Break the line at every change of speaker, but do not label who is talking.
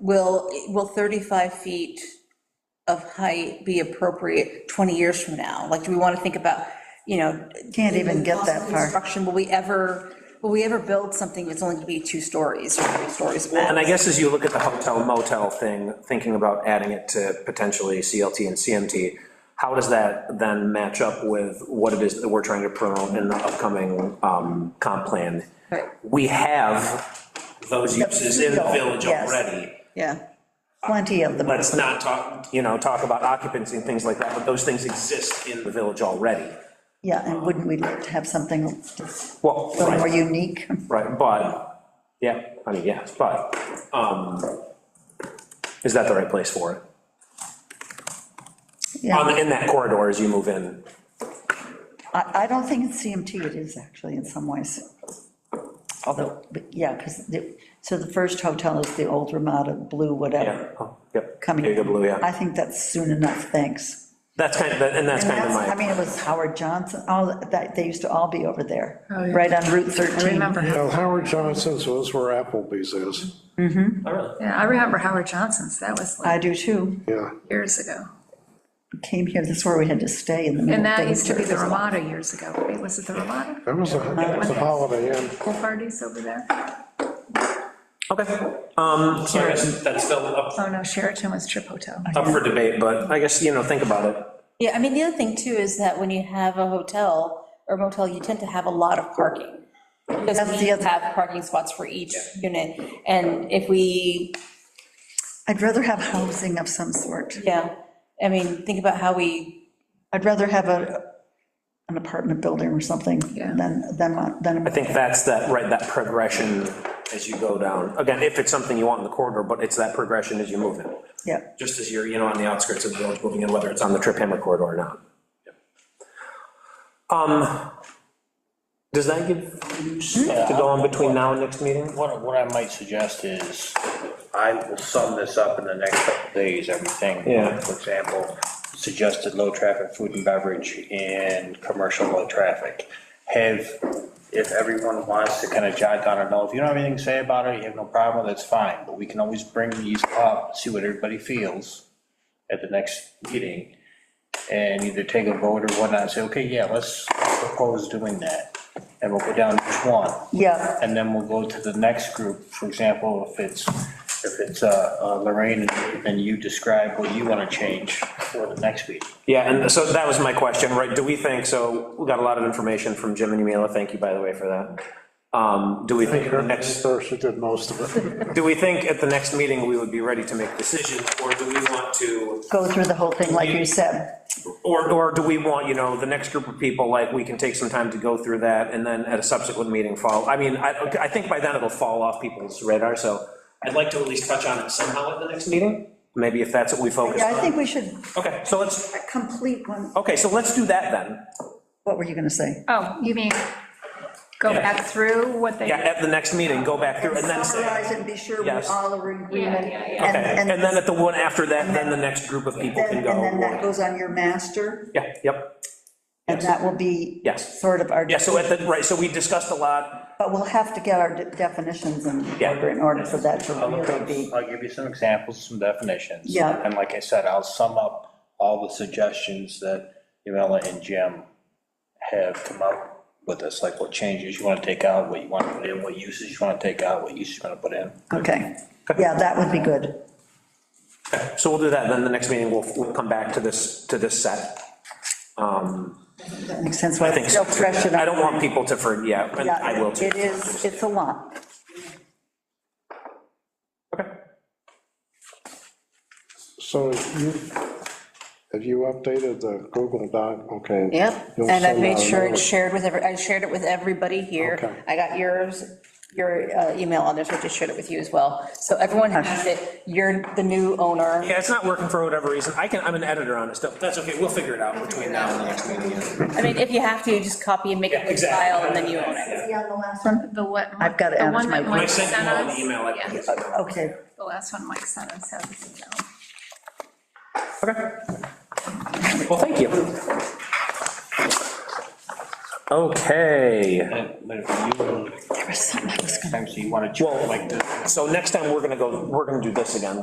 will, will 35 feet of height be appropriate 20 years from now? Like, do we want to think about, you know?
Can't even get that far.
Construction, will we ever, will we ever build something that's only going to be two stories or three stories max?
And I guess as you look at the hotel motel thing, thinking about adding it to potentially CLT and CMT, how does that then match up with what it is that we're trying to promote in the upcoming um, comp plan?
Right.
We have those uses in the village
Yes.
already.
yeah. Plenty of them.
Let's not talk, you know, talk about occupancy and things like that, but those things exist in the village already.
Yeah, and wouldn't we like to have something
Well,
more
right,
unique?
right, but, yeah, I mean, yes, but, um, is that the right place for it? on,
Yeah,
the- in that corridor as you move in.
I, I don't think in CMT it is actually in some ways. Although, but yeah, because the, so the first hotel is the old Ramada Blue,
Yeah,
whatever,
oh, yep.
coming.
There you go, blue,
I
yeah.
think that's soon enough, thanks.
That's kind of, and that's
And
kind of
that's- I
my,
mean, it was Howard Johnson, all, that, they used to all be over there,
Oh, yeah.
right on Route
I
13.
remember,
Now, Howard Johnson's was where Applebee's is,
Oh, really?
yeah, I remember Howard Johnson's, that was like
I do too.
yeah.
years ago.
Came here, this is where we had to stay in the middle.
And that
of
used to be the
winter.
Ramada years ago, right? Was it the Ramada?
That was a, that was a Holiday Inn.
Pool parties over there?
Okay, um, so I guess that's still up,
Oh, no, Sheraton was Trip Hotel.
up for debate, but I guess, you know, think about it.
Yeah, I mean, the other thing too is that when you have a hotel or motel, you tend to have a lot of parking. Because
That's
we
the other-
have parking spots for each unit, and if we,
I'd rather have housing of some sort.
yeah, I mean, think about how we,
I'd rather have a, an apartment building or something
Yeah.
than, than, than.
I think that's that, right, that progression as you go down. Again, if it's something you want in the corridor, but it's that progression as you move in.
Yeah,
Just as you're, you know, on the outskirts of the village moving in, whether it's on the Trip Hammer corridor or not. Um, does that give you stuff to go on between now and next meeting?
What, what I might suggest is, I will sum this up in the next couple days, everything.
Yeah.
For example, suggested low-traffic food and beverage and commercial low-traffic. Have, if everyone wants to kind of jot down or know, if you don't have anything to say about it, you have no problem, that's fine, but we can always bring these up, see what everybody feels at the next meeting, and either take a vote or whatnot, say, okay, yeah, let's propose doing that, and we'll go down each one.
yeah,
And then we'll go to the next group, for example, if it's, if it's uh, uh, Lorraine, and- and you describe what you want to change for the next week.
Yeah, and so that was my question, right, do we think, so we got a lot of information from Jim and Yumila, thank you, by the way, for that. Um, Do we think at the next,
Thirsty did most of it.
do we think at the next meeting we would be ready to make decisions, or do we want to,
go through the whole thing like you said.
or, or do we want, you know, the next group of people, like, we can take some time to go through that, and then at a subsequent meeting fall, I mean, I, I think by then it'll fall off people's radar, so I'd like to at least touch on it somehow at the next meeting, maybe if that's what we focus
Yeah, I
on.
think we should
Okay, so let's,
complete one,
okay, so let's do that then.
what were you gonna say?
Oh, you mean go
Yeah.
back through what they,
Yeah, at the next meeting, go back through, and then say.
Summarize and be sure we
Yes.
all are in agreement.
yeah,
and-
Okay,
and-
and then at the one after that, then the next group of people can
then-
go.
And then that goes on your master,
Yeah, yep,
and that will be.
Yes.
Sort of our.
yeah, so at the, right, so we discussed a lot,
But we'll have to get our de- definitions in
Yeah.
order, in order for that to really be.
I'll give you some examples, some definitions.
Yeah.
And like I said, I'll sum up all the suggestions that Yumela and Jim have come up with us, like what changes you want to take out, what you want to put in, what uses you want to take out, what uses you want to put in.
Okay, yeah, that would be good.
so we'll do that, then the next meeting, we'll, we'll come back to this, to this set. Um,
That makes sense.
I think, so.
Still fresh it up.
I don't want people to, for, yeah, and
Yeah,
I will too.
It is, it's a lot.
So you, have you updated the Google Doc? Okay.
yep,
You'll
and I've
send
made
out
sure
another-
it's shared with every, I shared it with everybody
Okay.
here. I got yours, your uh, email on there, so I just shared it with you as well. So everyone has it, you're the new owner.
Yeah, it's not working for whatever reason, I can, I'm an editor on it still, that's okay, we'll figure it out between now and the next meeting. yeah.
I mean, if you have to, you just copy and make
Yeah,
a good
exactly.
file, and then you own it.
Yeah, the last one.
the what?
I've got it
the
out of
one that
my-
When I
Mike
sent you all
us?
the email, I
Yeah,
think.
Okay,
The last one Mike sent us, that was email.
Okay. Well, thank you. Okay,
Time, so you want to,
well,
like, this.
so next time, we're gonna go, we're gonna do this again.